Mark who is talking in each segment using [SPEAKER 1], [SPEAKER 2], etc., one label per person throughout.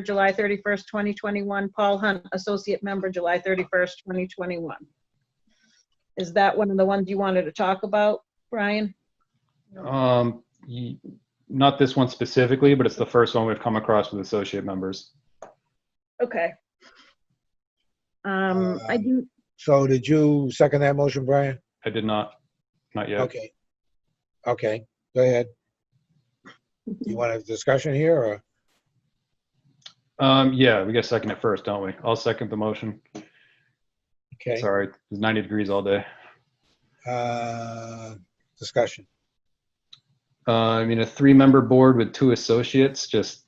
[SPEAKER 1] July 31st, 2021. Paul Hunt, Associate Member, July 31st, 2021. Is that one of the ones you wanted to talk about, Brian?
[SPEAKER 2] Um, y- not this one specifically, but it's the first one we've come across with associate members.
[SPEAKER 1] Okay. Um, I do,
[SPEAKER 3] So did you second that motion, Brian?
[SPEAKER 2] I did not, not yet.
[SPEAKER 3] Okay. Okay, go ahead. You want a discussion here or?
[SPEAKER 2] Um, yeah, we got to second it first, don't we? I'll second the motion.
[SPEAKER 3] Okay,
[SPEAKER 2] Sorry, it was 90 degrees all day.
[SPEAKER 3] uh, discussion.
[SPEAKER 2] Uh, I mean, a three-member board with two associates, just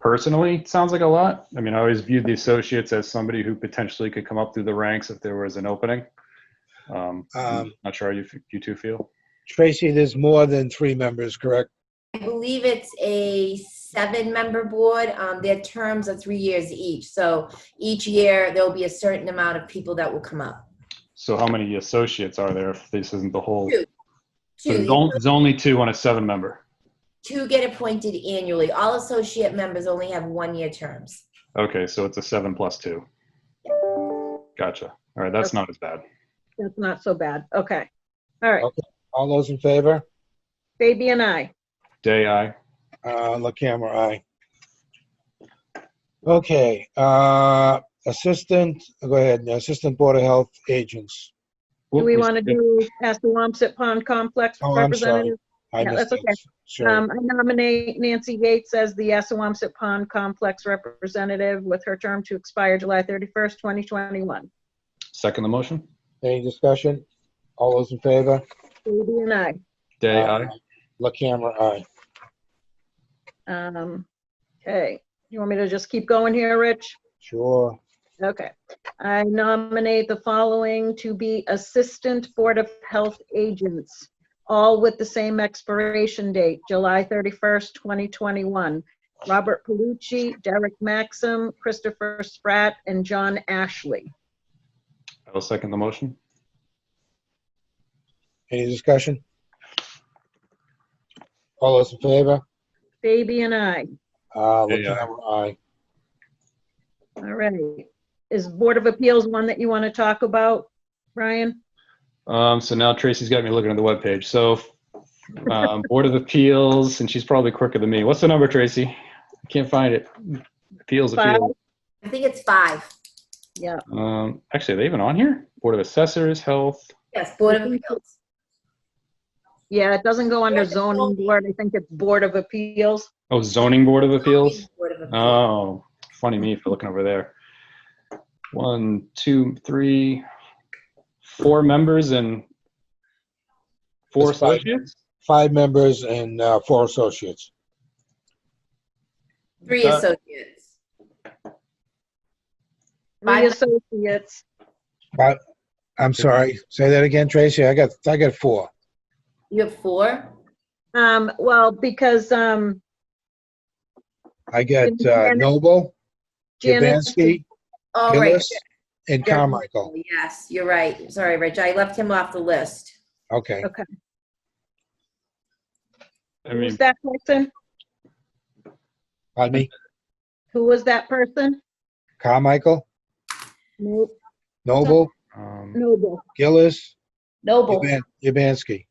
[SPEAKER 2] personally, it sounds like a lot. I mean, I always viewed the associates as somebody who potentially could come up through the ranks if there was an opening. Um,
[SPEAKER 3] Um,
[SPEAKER 2] not sure how you, f- you two feel.
[SPEAKER 3] Tracy, there's more than three members, correct?
[SPEAKER 4] I believe it's a seven-member board. Um, Their terms are three years each, so each year there'll be a certain amount of people that will come up.
[SPEAKER 2] So how many associates are there if this isn't the whole?
[SPEAKER 4] Two.
[SPEAKER 2] So there's
[SPEAKER 4] Two,
[SPEAKER 2] on- there's only two on a seven-member.
[SPEAKER 4] two get appointed annually. All associate members only have one-year terms.
[SPEAKER 2] Okay, so it's a seven plus two. Gotcha. All right, that's not as bad.
[SPEAKER 1] that's not so bad. Okay. All
[SPEAKER 3] Oh.
[SPEAKER 1] right,
[SPEAKER 3] All those in favor?
[SPEAKER 1] Baby and I.
[SPEAKER 2] Day, I.
[SPEAKER 3] Uh, La camera, aye. Okay, uh, assistant, go ahead, assistant board of health agents.
[SPEAKER 1] Do we want to do Assawamsett Pond Complex
[SPEAKER 3] Oh, I'm sorry.
[SPEAKER 1] representative?
[SPEAKER 3] I
[SPEAKER 1] Yeah,
[SPEAKER 3] missed
[SPEAKER 1] that's
[SPEAKER 3] that. Sure,
[SPEAKER 1] Um, I nominate Nancy Yates as the Assawamsett Pond Complex representative with her term to expire July 31st, 2021.
[SPEAKER 2] Second the motion.
[SPEAKER 3] any discussion? All those in favor?
[SPEAKER 1] Baby and I.
[SPEAKER 2] Day,
[SPEAKER 3] Uh,
[SPEAKER 2] I.
[SPEAKER 3] La camera, aye.
[SPEAKER 1] Um, okay, you want me to just keep going here, Rich?
[SPEAKER 3] Sure,
[SPEAKER 1] Okay. I nominate the following to be Assistant Board of Health Agents, all with the same expiration date, July 31st, 2021. Robert Palucci, Derek Maxim, Christopher Spratt, and John Ashley.
[SPEAKER 2] I'll second the motion.
[SPEAKER 3] any discussion? All those in favor?
[SPEAKER 1] Baby and I.
[SPEAKER 3] Uh, La
[SPEAKER 2] Yeah.
[SPEAKER 3] camera, aye.
[SPEAKER 1] All right. Is Board of Appeals one that you want to talk about, Brian?
[SPEAKER 2] Um, so now Tracy's got me looking at the webpage. So, um, Board of Appeals, and she's probably quicker than me. What's the number, Tracy? I can't find it. Appeals,
[SPEAKER 1] Five.
[SPEAKER 2] appeals.
[SPEAKER 4] I think it's five.
[SPEAKER 1] Yeah,
[SPEAKER 2] Um, actually, are they even on here? Board of Assessors, Health.
[SPEAKER 4] Yes, Board of Appeals.
[SPEAKER 1] yeah, it doesn't go under zoning board. I think it's Board of Appeals.
[SPEAKER 2] Oh, Zoning Board of Appeals.
[SPEAKER 4] Board of Appeals.
[SPEAKER 2] Oh, funny me for looking over there. One, two, three, four members and four
[SPEAKER 3] That's five.
[SPEAKER 2] associates?
[SPEAKER 3] Five members and uh, four associates.
[SPEAKER 4] Three
[SPEAKER 2] Uh,
[SPEAKER 4] associates.
[SPEAKER 1] My
[SPEAKER 4] Five.
[SPEAKER 1] associates.
[SPEAKER 3] But, I'm sorry, say that again, Tracy, I got, I got four.
[SPEAKER 4] You have four?
[SPEAKER 1] Um, well, because, um,
[SPEAKER 3] I got
[SPEAKER 1] Didn't
[SPEAKER 3] uh,
[SPEAKER 1] hear it.
[SPEAKER 3] Noble,
[SPEAKER 1] Janice.
[SPEAKER 3] Jabansky,
[SPEAKER 4] All right.
[SPEAKER 3] Gillis, and
[SPEAKER 1] Yeah.
[SPEAKER 3] Carmichael.
[SPEAKER 4] Yes, you're right. Sorry, Rich, I left him off the list.
[SPEAKER 3] Okay,
[SPEAKER 2] I
[SPEAKER 1] Who's
[SPEAKER 2] mean,
[SPEAKER 1] that person?
[SPEAKER 3] pardon me,
[SPEAKER 1] Who was that person?
[SPEAKER 3] Carmichael,
[SPEAKER 1] Nope,
[SPEAKER 3] Noble,
[SPEAKER 2] um,
[SPEAKER 1] Noble.
[SPEAKER 3] Gillis,
[SPEAKER 4] Noble.
[SPEAKER 3] Jaban- Jabansky.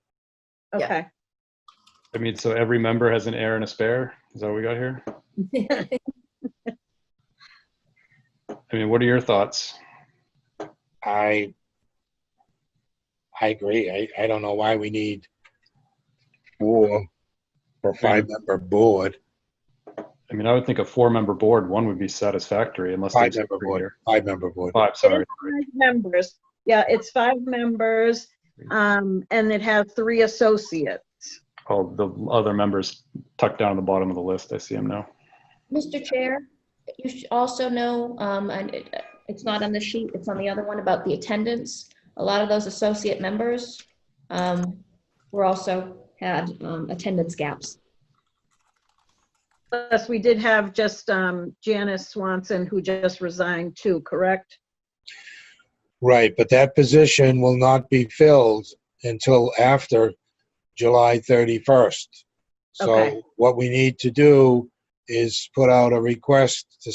[SPEAKER 4] Yeah.
[SPEAKER 1] Okay.
[SPEAKER 2] I mean, so every member has an heir and a spare? Is that what we got here? I mean, what are your thoughts?
[SPEAKER 3] I, I agree. I, I don't know why we need four for five-member board,
[SPEAKER 2] I mean, I would think a four-member board, one would be satisfactory unless there's
[SPEAKER 3] Five-member
[SPEAKER 2] three
[SPEAKER 3] board.
[SPEAKER 2] here.
[SPEAKER 3] five-member board.
[SPEAKER 2] Five, sorry.
[SPEAKER 1] Five Members. Yeah, it's five members, um, and it has three associates.
[SPEAKER 2] Oh, the other members tucked down at the bottom of the list. I see them now.
[SPEAKER 5] Mr. Chair, you should also know, um, and it- it's not on the sheet, it's on the other one about the attendance. A lot of those associate members um, were also had um, attendance gaps.
[SPEAKER 1] Plus, we did have just, um, Janice Swanson, who just resigned too, correct?
[SPEAKER 3] Right, but that position will not be filled until after July 31st. So
[SPEAKER 1] Okay.
[SPEAKER 3] what we need to do is put out a request to